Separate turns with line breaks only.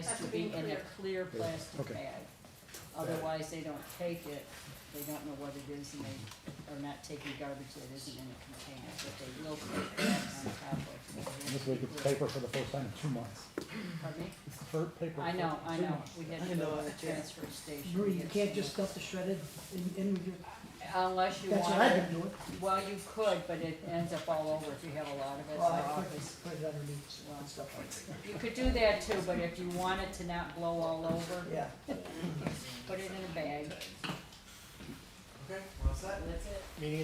should be in a clear plastic
Okay.
bag. Otherwise, they don't take it, they don't know what it is, and they are not taking garbage that isn't in a container, but they will take that on top of. it.
This week it's paper for the first time in two months.
Pardon me?
It's the first paper.
I
for
know, I
two
know,
months.
we had to go to the transfer station. to
Marie, you
get
can't
some-
just stuff the shredded in, in with your,
Unless you
that's what I've
want,
been doing.
well, you could, but it ends up all over if you have a lot of it in the
Well, I put,
office.
put it underneath and stuff like
You could do that too, but if you want it to not blow all over,
that. Yeah,
put it in a bag,
Okay, we're all set?
that's it.
Meeting